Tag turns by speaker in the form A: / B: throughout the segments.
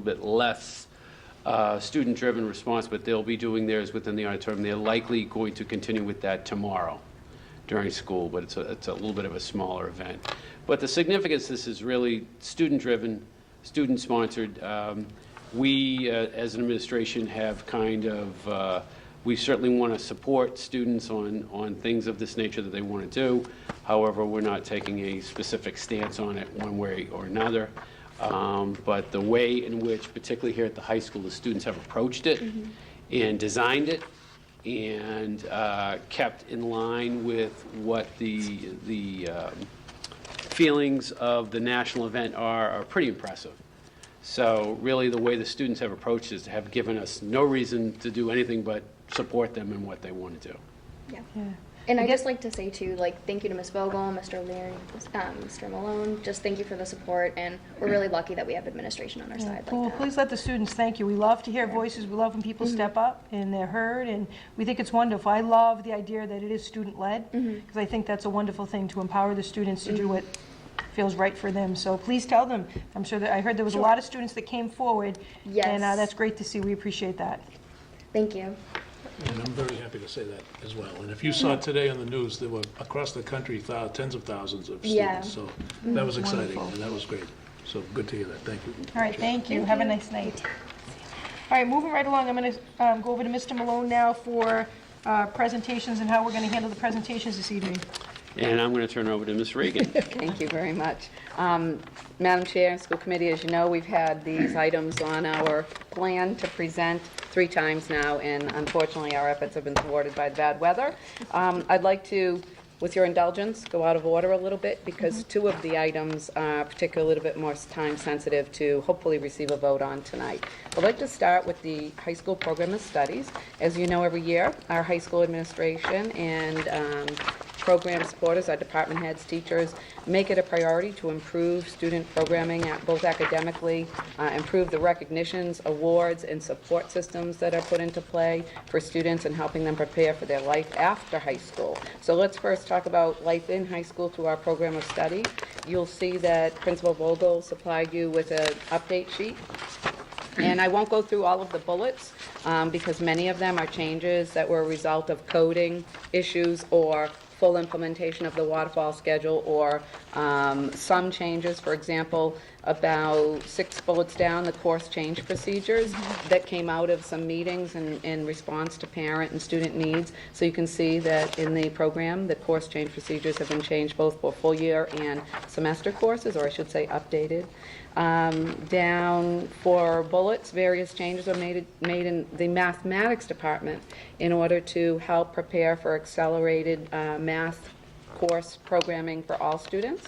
A: bit less uh, student-driven response, but they'll be doing theirs within the auditorium. They're likely going to continue with that tomorrow during school, but it's a, it's a little bit of a smaller event. But the significance, this is really student-driven, student-sponsored. Um, We, uh, as an administration, have kind of, uh, we certainly want to support students on, on things of this nature that they want to do. However, we're not taking a specific stance on it one way or another. Um, But the way in which, particularly here at the high school, the students have approached it and designed it and uh, kept in line with what the, the um, feelings of the national event are, are pretty impressive. So really, the way the students have approached is to have given us no reason to do anything but support them in what they want to do.
B: Yeah.
C: Yeah.
B: And I just like to say too, like, thank you to Ms. Vogel, Mr. Leary, um, Mr. Malone. Just thank you for the support, and we're really lucky that we have administration on our side like
C: Well,
B: that.
C: please let the students thank you. We love to hear voices, we love when people step up and they're heard, and we think it's wonderful. I love the idea that it is student-led, because I think that's a wonderful thing, to empower the students to do what feels right for them. So please tell them, I'm sure that, I heard there was a lot of students that came forward. And uh,
B: Yes.
C: that's great to see, we appreciate that.
B: Thank you.
D: And I'm very happy to say that as well. And if you saw today on the news, there were across the country thou- tens of thousands of
B: Yeah.
D: students. So that was exciting and that was great. So good to hear that. Thank you.
C: All right, thank you, have a nice night. All right, moving right along, I'm going to go over to Mr. Malone now for uh, presentations and how we're going to handle the presentations this evening.
A: And I'm going to turn it over to Ms. Regan.
E: Thank you very much. Um, Madam Chair and School Committee, as you know, we've had these items on our plan to present three times now, and unfortunately, our efforts have been thwarted by bad weather. Um, I'd like to, with your indulgence, go out of order a little bit, because two of the items are particularly a little bit more time-sensitive to hopefully receive a vote on tonight. I'd like to start with the high school program of studies. As you know, every year, our high school administration and um, program supporters, our department heads, teachers, make it a priority to improve student programming, uh, both academically, uh, improve the recognitions, awards, and support systems that are put into play for students and helping them prepare for their life after high school. So let's first talk about life in high school through our program of study. You'll see that Principal Vogel supplied you with an update sheet and I won't go through all of the bullets, um, because many of them are changes that were a result of coding issues or full implementation of the waterfall schedule, or um, some changes, for example, about six bullets down, the course change procedures that came out of some meetings in in response to parent and student needs. So you can see that in the program, the course change procedures have been changed both for full year and semester courses, or I should say updated. Um, Down for bullets, various changes are made, made in the mathematics department in order to help prepare for accelerated uh, math course programming for all students.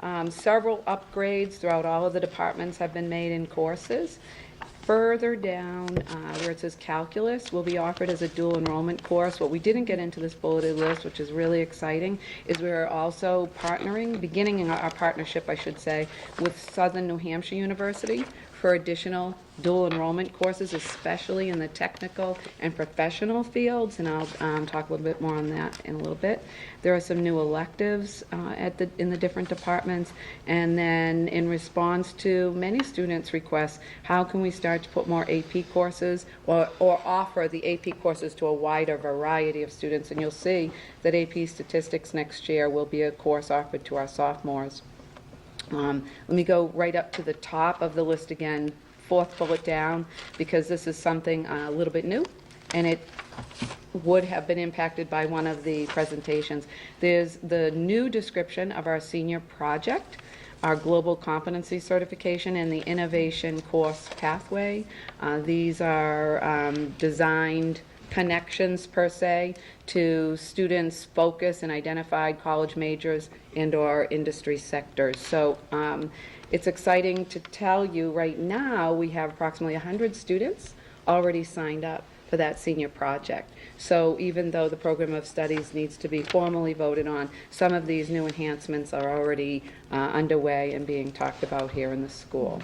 E: Um, Several upgrades throughout all of the departments have been made in courses. Further down, uh, where it says calculus, will be offered as a dual enrollment course. What we didn't get into this bulleted list, which is really exciting, is we're also partnering, beginning our- our partnership, I should say, with Southern New Hampshire University for additional dual enrollment courses, especially in the technical and professional fields, and I'll um, talk a little bit more on that in a little bit. There are some new electives uh, at the, in the different departments, and then in response to many students' requests, how can we start to put more AP courses or, or offer the AP courses to a wider variety of students? And you'll see that AP statistics next year will be a course offered to our sophomores. Um, Let me go right up to the top of the list again, fourth bullet down, because this is something uh, a little bit new, and it would have been impacted by one of the presentations. There's the new description of our senior project, our global competency certification, and the innovation course pathway. Uh, These are um, designed connections per se to students' focus and identified college majors and/or industry sectors. So um, it's exciting to tell you, right now, we have approximately 100 students already signed up for that senior project. So even though the program of studies needs to be formally voted on, some of these new enhancements are already uh, underway and being talked about here in the school.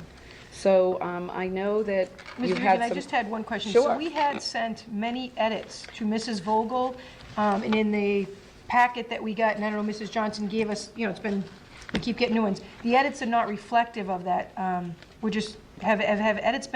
E: So um, I know that
C: Ms.
E: you
C: Regan,
E: had some...
C: I just had one question. So
E: Sure.
C: we had sent many edits to Mrs. Vogel, um, and in the packet that we got, and I don't know, Mrs. Johnson gave us, you know, it's been, we keep getting new ones. The edits are not reflective of that. Um, we're just, have, have have edits been